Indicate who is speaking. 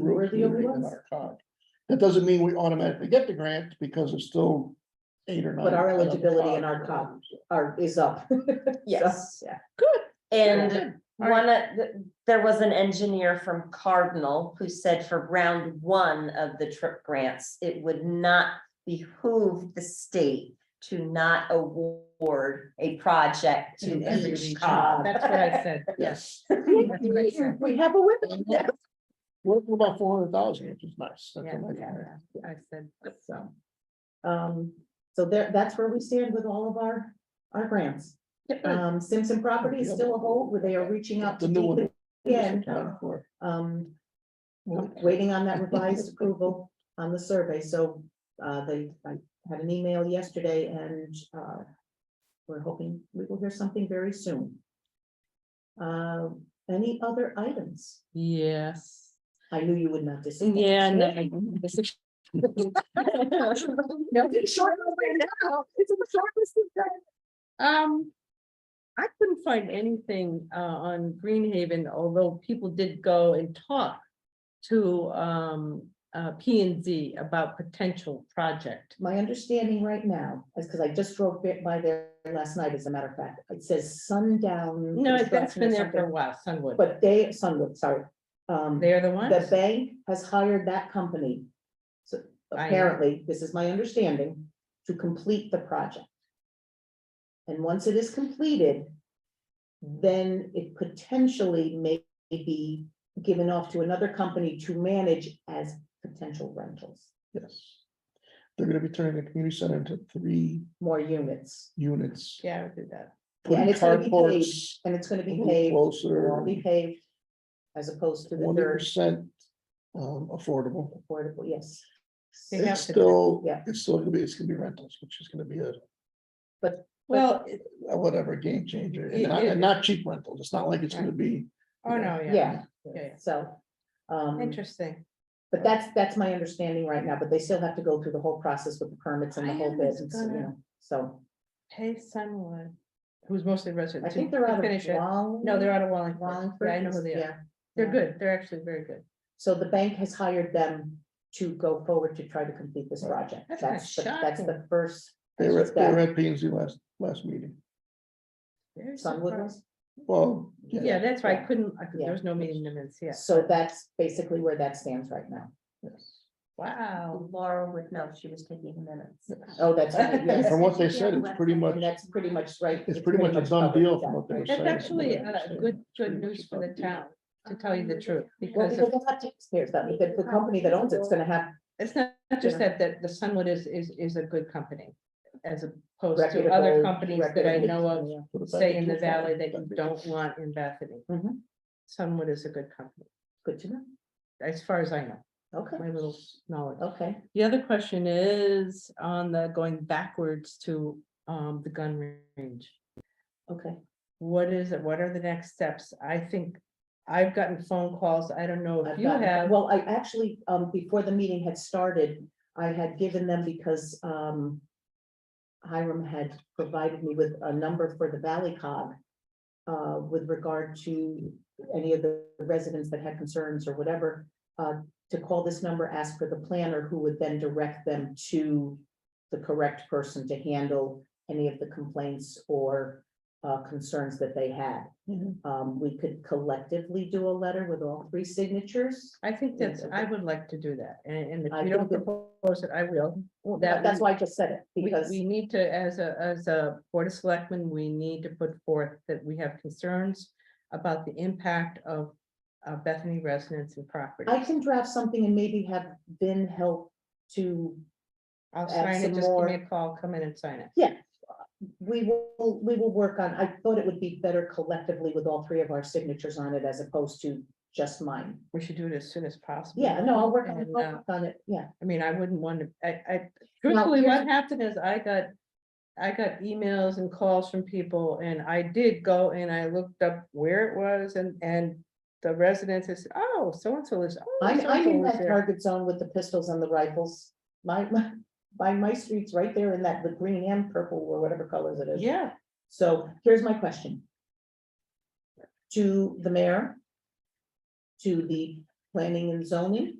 Speaker 1: we're the only
Speaker 2: included in
Speaker 1: ones.
Speaker 2: our cog. That doesn't mean we automatically get the grant because it's still eight or nine.
Speaker 1: But our
Speaker 2: percent of the
Speaker 1: eligibility and our
Speaker 2: COG.
Speaker 1: Or is up.
Speaker 3: Yes.
Speaker 1: Yeah.
Speaker 3: And
Speaker 1: Good. All
Speaker 3: one, of the- there was an engineer from Cardinal who said for round one of the trip grants, it would not behoove the state to not award a project to
Speaker 2: To every
Speaker 3: each
Speaker 2: region.
Speaker 3: cog.
Speaker 4: That's what I said.
Speaker 2: Yes,
Speaker 1: We have a women.
Speaker 2: we're we're about four hundred thousand, which is nice. That's a
Speaker 4: Yeah,
Speaker 2: nice
Speaker 4: yeah,
Speaker 2: grant.
Speaker 4: I said,
Speaker 1: So, um, so there, that's where we stand with all of our, our grants. Um, Simpson property is still a hold, where they are reaching out to
Speaker 2: The new one.
Speaker 1: DEP again,
Speaker 2: Accounted for.
Speaker 1: um, waiting on that revised approval on the survey, so, uh, they, I had an email yesterday and, uh, we're hoping we will hear something very soon. Uh, any other items?
Speaker 4: yes.
Speaker 1: I knew you would not disappoint.
Speaker 4: Yeah. no, this is- Um, I couldn't find anything uh on Greenhaven, although people did go and talk to um uh P and Z about potential project.
Speaker 1: My understanding right now is because I just drove bit by there last night, as a matter of fact, it says sundown.
Speaker 4: No, that's
Speaker 1: construction or
Speaker 4: been there for a
Speaker 1: something,
Speaker 4: while, Sunwood.
Speaker 1: But they, Sunwood, sorry. Um,
Speaker 4: They're the
Speaker 1: the
Speaker 4: ones.
Speaker 1: bank has hired that company. So
Speaker 4: I know.
Speaker 1: apparently, this is my understanding, to complete the project. And once it is completed, then it potentially may be given off to another company to manage as potential rentals,
Speaker 2: Yes. They're gonna be turning the community center into three
Speaker 1: more units.
Speaker 2: units.
Speaker 4: Yeah, I would do that.
Speaker 1: Yeah, and
Speaker 2: putting
Speaker 1: it's gonna be paved.
Speaker 2: carports
Speaker 1: And it's gonna
Speaker 2: a
Speaker 1: be
Speaker 2: little
Speaker 1: paved, it'll all
Speaker 2: Closer,
Speaker 1: be paved as opposed to the
Speaker 2: one
Speaker 1: third
Speaker 2: percent um affordable.
Speaker 1: affordable, yes.
Speaker 4: They have
Speaker 2: It's
Speaker 4: to-
Speaker 2: still,
Speaker 1: yeah.
Speaker 2: it's still gonna be, it's gonna be rentals, which is gonna be a
Speaker 4: Well,
Speaker 2: a whatever game changer, and
Speaker 4: It-
Speaker 2: not,
Speaker 4: it-
Speaker 2: and not cheap rentals, it's not like it's gonna be.
Speaker 4: oh, no, yeah,
Speaker 1: Yeah,
Speaker 4: yeah.
Speaker 1: so, um,
Speaker 4: Interesting.
Speaker 1: but that's, that's my understanding right now, but they still have to go through the whole process with the permits and the
Speaker 4: I
Speaker 1: whole
Speaker 4: am
Speaker 1: bit, and so, you
Speaker 4: gonna-
Speaker 1: know, so.
Speaker 4: Pay someone who's mostly
Speaker 1: I
Speaker 4: resident.
Speaker 1: think
Speaker 4: to-
Speaker 1: they're
Speaker 4: to
Speaker 1: out
Speaker 4: finish
Speaker 1: of
Speaker 4: it.
Speaker 1: Wall.
Speaker 4: No, they're out of Wallingford.
Speaker 1: Wallingford,
Speaker 4: Yeah, I know who they are.
Speaker 1: yeah,
Speaker 4: They're
Speaker 1: yeah.
Speaker 4: good. They're actually very good.
Speaker 1: So the bank has hired them to go forward to try to complete this
Speaker 2: Right.
Speaker 1: project,
Speaker 4: That's kinda
Speaker 1: that's, the- that's the
Speaker 4: shocking.
Speaker 1: first
Speaker 2: They were,
Speaker 1: It's
Speaker 2: they were
Speaker 1: that-
Speaker 2: at P and Z last, last meeting,
Speaker 4: Very
Speaker 1: Sunwood
Speaker 4: surprised.
Speaker 1: was.
Speaker 2: well,
Speaker 4: Yeah,
Speaker 2: yeah,
Speaker 4: that's why I
Speaker 1: Yeah.
Speaker 4: couldn't, I could-
Speaker 1: Yeah.
Speaker 4: there was no meeting minutes, yeah.
Speaker 1: So that's basically where that stands right now.
Speaker 2: yes,
Speaker 4: Wow.
Speaker 3: Laura would know, she was taking minutes.
Speaker 2: yes.
Speaker 1: Oh, that's, right,
Speaker 2: And
Speaker 1: yes,
Speaker 2: From what they said, it's pretty much,
Speaker 1: and that's pretty much right.
Speaker 2: it's pretty much a done
Speaker 1: covered,
Speaker 2: deal
Speaker 1: yeah.
Speaker 2: from what they were saying.
Speaker 4: That's actually
Speaker 2: from what they
Speaker 4: uh,
Speaker 2: were
Speaker 4: good,
Speaker 2: saying.
Speaker 4: good news for the town, to tell you the truth,
Speaker 1: Well,
Speaker 4: because
Speaker 1: because
Speaker 4: of-
Speaker 1: it's not taxpayers, that, the, the company that owns it's gonna have
Speaker 4: it's not not just
Speaker 1: Yeah.
Speaker 4: that, that the Sunwood is, is, is a good company. As opposed to
Speaker 1: reputable-
Speaker 4: other companies that I
Speaker 1: reputable-
Speaker 4: know of,
Speaker 1: yeah.
Speaker 2: Put it back
Speaker 4: say in
Speaker 2: into
Speaker 4: the
Speaker 2: a fund.
Speaker 4: valley, that you
Speaker 2: That'd be-
Speaker 4: don't want in Bethany.
Speaker 1: Mhm.
Speaker 4: Sunwood is a good company,
Speaker 1: Good to know,
Speaker 4: as far as I know,
Speaker 1: okay,
Speaker 4: my little knowledge.
Speaker 1: okay,
Speaker 4: The other question is on the going backwards to um the gun range.
Speaker 1: okay.
Speaker 4: What is it? What are the next steps? I think I've gotten phone calls. I don't know if
Speaker 1: I've
Speaker 4: you
Speaker 1: gotten-
Speaker 4: have.
Speaker 1: Well, I actually, um, before the meeting had started, I had given them because, um. Hiram had provided me with a number for the Valley Cog. Uh, with regard to any of the residents that had concerns or whatever. Uh, to call this number, ask for the planner, who would then direct them to. The correct person to handle any of the complaints or, uh, concerns that they had.
Speaker 2: Mhm.
Speaker 1: Um, we could collectively do a letter with all three signatures.
Speaker 4: I think that's, I would like to do that. And, and if you don't
Speaker 1: think it-
Speaker 4: propose it, I will.
Speaker 1: Well,
Speaker 4: That
Speaker 1: that- that's
Speaker 4: we-
Speaker 1: why I just said it,
Speaker 4: We,
Speaker 1: because,
Speaker 4: we need to, as a, as a board of selectmen, we need to put forth that we have concerns about the impact of uh, Bethany residents and property.
Speaker 1: I can draft something and maybe have Vin help to,
Speaker 4: I'll
Speaker 1: add
Speaker 4: sign it.
Speaker 1: some
Speaker 4: Just give me
Speaker 1: more-
Speaker 4: a call, come in and sign it.
Speaker 1: we will, we will work on, I thought it would be better collectively with all three of our signatures on it as opposed to just mine.
Speaker 4: We should do it as soon as possible.
Speaker 1: Yeah, no, I'll work on it,
Speaker 4: And,
Speaker 1: I'll
Speaker 4: uh,
Speaker 1: work on it, yeah.
Speaker 4: I mean, I wouldn't want to, I, I, truthfully,
Speaker 1: here's-
Speaker 4: what happened is I got, I got emails and calls from people and I did go and I looked up where it was and, and the residents is, oh, so-and-so is. oh,
Speaker 1: I'm, I'm
Speaker 4: so-and-so
Speaker 1: in
Speaker 4: was
Speaker 1: that
Speaker 4: there."
Speaker 1: target zone with the pistols and the rifles. My, my, my, my street's right there in that, the green and purple or whatever colors it is.
Speaker 4: Yeah,
Speaker 1: So here's my question. To the mayor. To the planning and zoning,